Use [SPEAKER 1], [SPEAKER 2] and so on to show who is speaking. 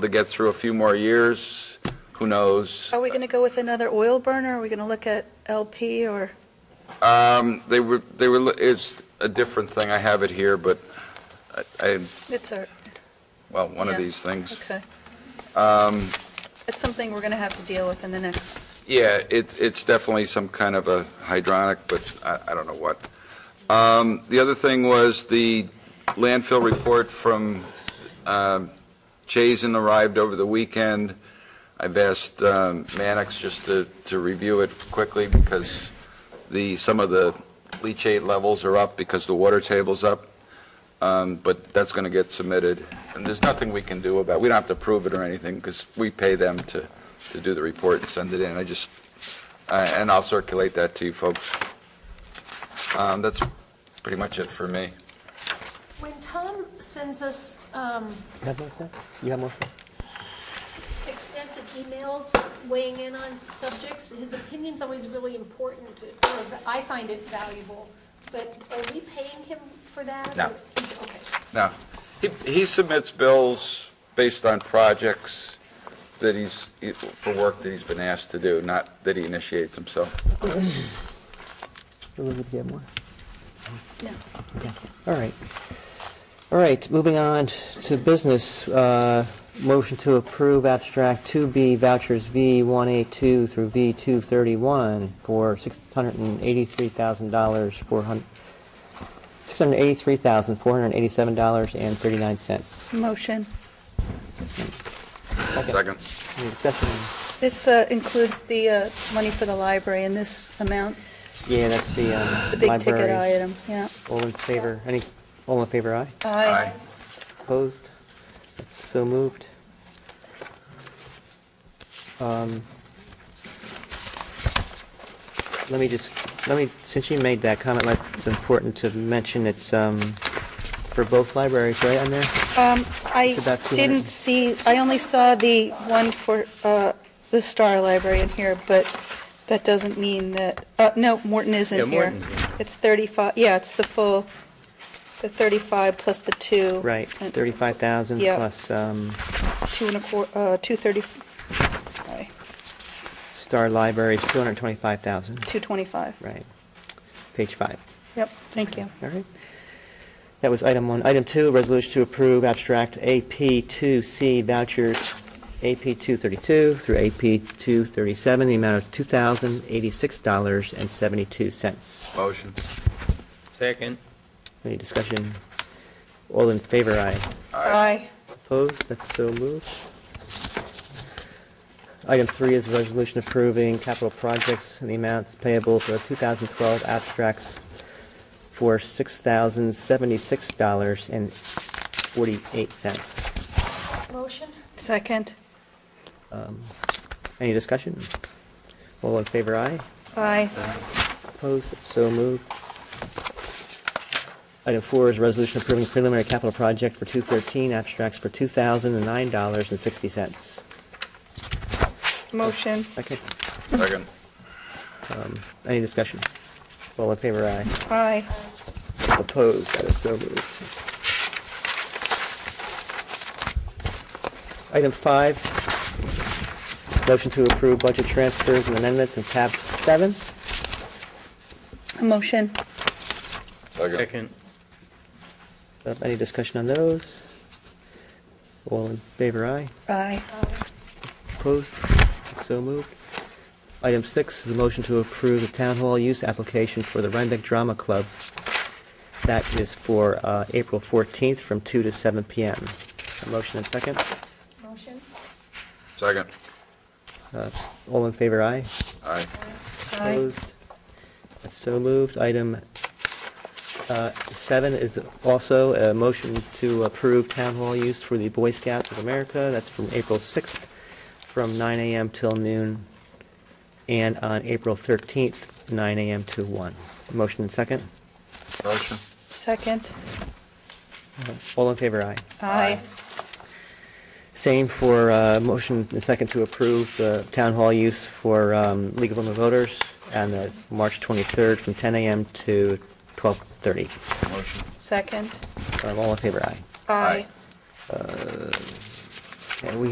[SPEAKER 1] to get through a few more years, who knows?
[SPEAKER 2] Are we going to go with another oil burner? Are we going to look at LP or,
[SPEAKER 1] Um, They were, they were, it's a different thing, I have it here, but I- I,
[SPEAKER 2] it's our,
[SPEAKER 1] well, one of
[SPEAKER 2] Yeah.
[SPEAKER 1] these things.
[SPEAKER 2] okay. It's something we're going to have to deal with in the next,
[SPEAKER 1] Yeah, it, it's definitely some kind of a hydronic, but I, I don't know what. Um, The other thing was the landfill report from um, Chazen arrived over the weekend. I've asked um, Mannix just to, to review it quickly because the, some of the leachate levels are up because the water table's up. Um, But that's going to get submitted, and there's nothing we can do about, it. we don't have to prove it or anything, because we pay them to, to do the report and send it in. I just, I- and I'll circulate that to you folks. Um, That's pretty much it for me.
[SPEAKER 3] When Tom sends us um,
[SPEAKER 4] You have more, Seth? You have more?
[SPEAKER 3] extensive emails weighing in on subjects, his opinion's always really important, to- or I find it valuable, but are we paying him for that?
[SPEAKER 1] No.
[SPEAKER 3] Or- Okay.
[SPEAKER 1] Now, he, he submits bills based on projects that he's, for work that he's been asked to do, not that he initiates himself.
[SPEAKER 4] Elizabeth, you have more?
[SPEAKER 2] no.
[SPEAKER 4] All right. All right, moving on to business. Uh, Motion to approve abstract 2B vouchers V182 through V231 for $683,000, four hun- $683,487.39.
[SPEAKER 2] Motion.
[SPEAKER 1] Second.
[SPEAKER 4] Any discussion?
[SPEAKER 2] This uh, includes the uh, money for the library and this amount,
[SPEAKER 4] Yeah, that's the um,
[SPEAKER 2] the big ticket
[SPEAKER 4] libraries.
[SPEAKER 2] item, yeah.
[SPEAKER 4] All in favor, any, all in favor, aye?
[SPEAKER 1] Aye.
[SPEAKER 4] Opposed? That's so moved. Um, Let me just, let me, since you made that comment, let- it's important to mention it's um, for both libraries, right, on there?
[SPEAKER 2] Um, I
[SPEAKER 4] It's about 200.
[SPEAKER 2] didn't see, I only saw the one for uh, the Star Library in here, but that doesn't mean that, uh, no, Morton isn't
[SPEAKER 1] Yeah,
[SPEAKER 2] here.
[SPEAKER 1] Morton's
[SPEAKER 2] It's 35, yeah, it's the full, the 35 plus the two.
[SPEAKER 4] Right,
[SPEAKER 2] and
[SPEAKER 4] 35,000
[SPEAKER 2] Yeah.
[SPEAKER 4] plus um,
[SPEAKER 2] Two and a quarter, uh, 230, sorry,
[SPEAKER 4] Star Libraries, 225,000,
[SPEAKER 2] 225.
[SPEAKER 4] right. Page five.
[SPEAKER 2] Yep, thank you.
[SPEAKER 4] All right. That was item one. Item two, resolution to approve abstract AP2C vouchers, AP232 through AP237, the amount of $2,086.72.
[SPEAKER 1] Motion.
[SPEAKER 5] Second.
[SPEAKER 4] Any discussion? All in favor, aye.
[SPEAKER 2] Aye.
[SPEAKER 4] Opposed? That's so moved. Item three is a resolution approving capital projects and the amounts payable for the 2012 abstracts for $6,076.48.
[SPEAKER 3] Motion?
[SPEAKER 2] Second.
[SPEAKER 4] Um, Any discussion? All in favor, aye.
[SPEAKER 2] Aye.
[SPEAKER 4] Opposed? That's so moved. Item four is a resolution approving preliminary capital project for 213 abstracts for $2,009.60.
[SPEAKER 2] Motion.
[SPEAKER 4] Second?
[SPEAKER 1] Second.
[SPEAKER 4] Any discussion? All in favor, aye.
[SPEAKER 2] Aye.
[SPEAKER 3] Uh,
[SPEAKER 4] Opposed, that is so moved. Item five, motion to approve budget transfers and amendments in tab seven.
[SPEAKER 2] Motion.
[SPEAKER 1] Second.
[SPEAKER 5] Second.
[SPEAKER 4] Uh, Any discussion on those? All in favor, aye.
[SPEAKER 2] Aye.
[SPEAKER 3] uh,
[SPEAKER 4] Opposed? So moved. Item six is a motion to approve the town hall use application for the Rhinebeck Drama Club. That is for uh, April 14th from 2 to 7 p.m. A motion and second.
[SPEAKER 3] Motion?
[SPEAKER 1] Second.
[SPEAKER 4] Uh, All in favor, aye.
[SPEAKER 1] Aye.
[SPEAKER 3] Uh,
[SPEAKER 2] Aye.
[SPEAKER 4] Opposed? That's so moved. Item uh, seven is also a motion to approve town hall use for the Boy Scouts of America. That's from April 6th, from 9 a.m. till noon, and on April 13th, 9 a.m. to 1. Motion and second.
[SPEAKER 1] Motion.
[SPEAKER 2] Second.
[SPEAKER 4] All in favor, aye.
[SPEAKER 2] Aye.
[SPEAKER 4] Same for uh, motion and second to approve the town hall use for um, League of Women Voters on uh, March 23rd from 10 a.m. to 12:30.
[SPEAKER 1] Motion.
[SPEAKER 2] Second.
[SPEAKER 4] Um, All in favor, aye.
[SPEAKER 2] Aye.
[SPEAKER 4] Okay, we